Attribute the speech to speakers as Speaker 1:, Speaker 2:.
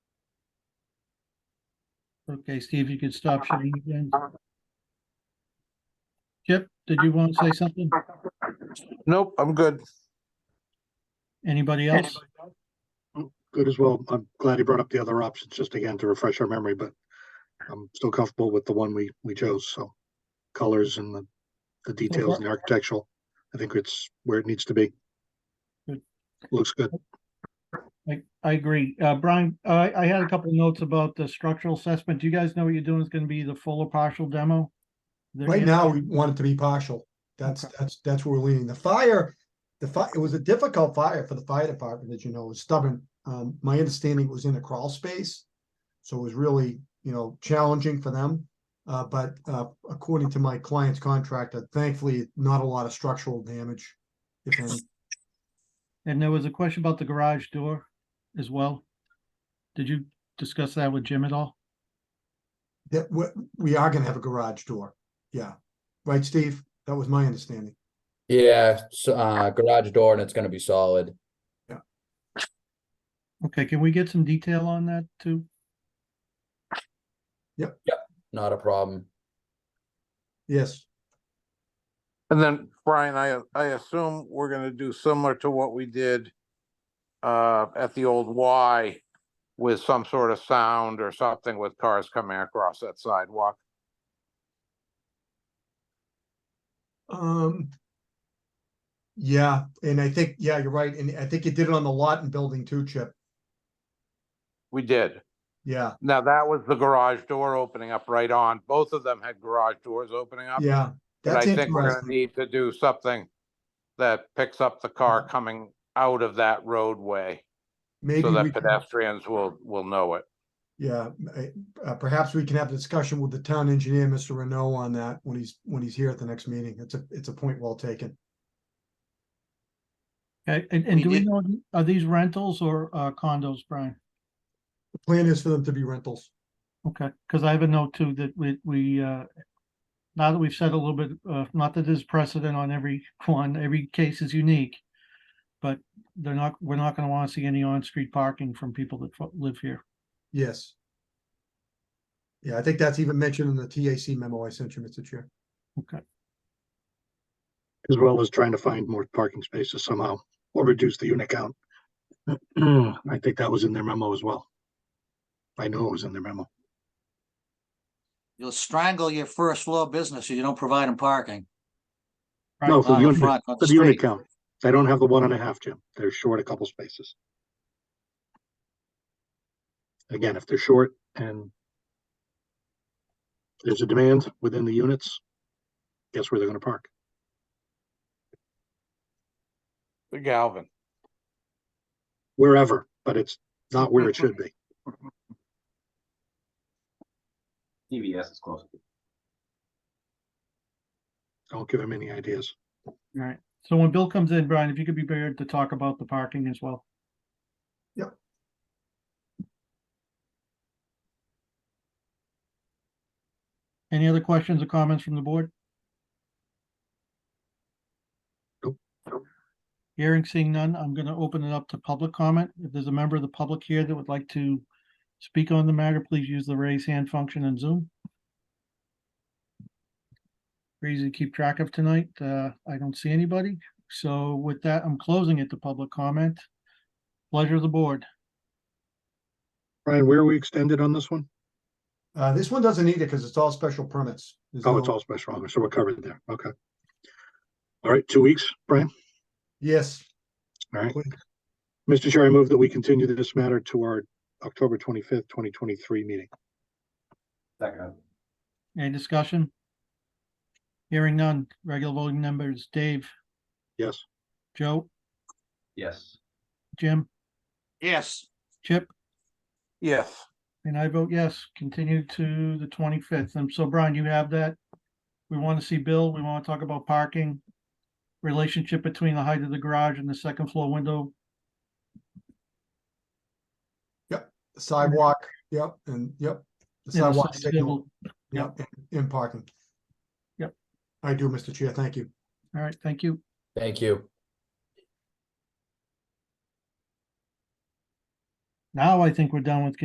Speaker 1: Okay, Steve, you could stop sharing again. Chip, did you want to say something?
Speaker 2: Nope, I'm good.
Speaker 1: Anybody else?
Speaker 3: good as well. I'm glad he brought up the other options, just again to refresh our memory, but I'm still comfortable with the one we, we chose, so. Colors and the, the details and the architectural, I think it's where it needs to be.
Speaker 1: Good.
Speaker 3: Looks good.
Speaker 1: I, I agree. Uh, Brian, I, I had a couple notes about the structural assessment. Do you guys know what you're doing? It's gonna be the full or partial demo? There
Speaker 4: Right
Speaker 1: is-
Speaker 4: now, we want it to be partial. That's, that's, that's where we're leaning. The fire, the fire, it was a difficult fire for the fire department, as you know, it was stubborn. Um, my understanding it was in a crawl space. So it was really, you know, challenging for them. Uh, but, uh, according to my client's contractor, thankfully, not a lot of structural damage. If any,
Speaker 1: And there was a question about the garage door as well. Did you discuss that with Jim at all?
Speaker 4: that, we, we are gonna have a garage door. Yeah. Right, Steve? That was my understanding.
Speaker 5: Yeah, so, uh, garage door and it's gonna be solid.
Speaker 1: Okay, can we get some detail on that too?
Speaker 5: Not a problem.
Speaker 4: Yes.
Speaker 2: And then, Brian, I, I assume we're gonna do similar to what we did uh, at the old Y with some sort of sound or something with cars coming across that sidewalk.
Speaker 4: Um. Yeah, and I think, yeah, you're right, and I think you did it on the lot and building too, Chip,
Speaker 2: We did.
Speaker 4: yeah,
Speaker 2: Now, that was the garage door opening up right on. Both of them had garage doors opening up.
Speaker 4: yeah.
Speaker 2: But I
Speaker 4: That's
Speaker 2: think we're gonna
Speaker 4: interesting,
Speaker 2: need to do something that picks up the car coming out of that roadway
Speaker 4: maybe
Speaker 2: so
Speaker 4: we,
Speaker 2: that
Speaker 4: can-
Speaker 2: pedestrians will, will know it.
Speaker 4: yeah, m- uh, perhaps we can have a discussion with the town engineer, Mr. Renault, on that when he's, when he's here at the next meeting, it's a, it's a point well taken.
Speaker 1: Okay, and, and do we know, are these rentals or uh, condos, Brian?
Speaker 4: The plan is for them to be rentals,
Speaker 1: Okay, because I have a note too that we, we, uh, now that we've said a little bit, uh, not that there's precedent on every one, every case is unique. But they're not, we're not gonna want to see any on-street parking from people that fo- live here.
Speaker 4: yes. Yeah, I think that's even mentioned in the TAC memo I sent you, Mr. Chair,
Speaker 1: Okay,
Speaker 3: As well as trying to find more parking spaces somehow, or reduce the unit count. I think that was in their memo as well. I know it was in their memo.
Speaker 6: You'll strangle your first floor business if you don't provide them parking.
Speaker 3: No, for
Speaker 6: on
Speaker 3: the
Speaker 6: the
Speaker 3: unit,
Speaker 6: front, on
Speaker 3: for
Speaker 6: the
Speaker 3: the unit
Speaker 6: street.
Speaker 3: count. They don't have the one and a half, Jim. They're short a couple spaces. Again, if they're short and there's a demand within the units, guess where they're gonna park?
Speaker 2: The Galvin.
Speaker 3: Wherever, but it's not where it should be.
Speaker 7: TVS is close.
Speaker 3: Don't give them any ideas.
Speaker 1: all right. So when Bill comes in, Brian, if you could be prepared to talk about the parking as well. Any other questions or comments from the board?
Speaker 3: Nope.
Speaker 1: Hearing seeing none, I'm gonna open it up to public comment. If there's a member of the public here that would like to speak on the matter, please use the raise hand function in Zoom. Pretty Easy to keep track of tonight. Uh, I don't see anybody. So with that, I'm closing it to public comment. Pleasure of the board.
Speaker 3: Brian, where are we extended on this one?
Speaker 4: uh, this one doesn't need it, cause it's all special permits. There's
Speaker 3: Oh, it's
Speaker 4: no-
Speaker 3: all special, so we're covered there. Okay. All right, two weeks, Brian?
Speaker 4: Yes,
Speaker 3: All right. Mr. Chair, I move that we continue this matter to our October twenty-fifth, twenty twenty-three meeting.
Speaker 7: Second.
Speaker 1: Any discussion? Hearing none. Regular voting members, Dave,
Speaker 3: Yes.
Speaker 1: Joe,
Speaker 7: Yes.
Speaker 1: Jim,
Speaker 6: Yes,
Speaker 1: Chip,
Speaker 2: Yes.
Speaker 1: and I vote yes, continue to the twenty-fifth. And so Brian, you have that. We want to see Bill. We want to talk about parking, relationship between the height of the garage and the second floor window.
Speaker 4: sidewalk, yep, and, yep. The
Speaker 1: and the
Speaker 4: sidewalk
Speaker 1: side
Speaker 4: signal.
Speaker 1: table.
Speaker 4: Yeah, in- in parking.
Speaker 1: Yep.
Speaker 4: I do, Mr. Chair, thank you.
Speaker 1: All right, thank you.
Speaker 5: Thank you.
Speaker 1: Now I think we're done with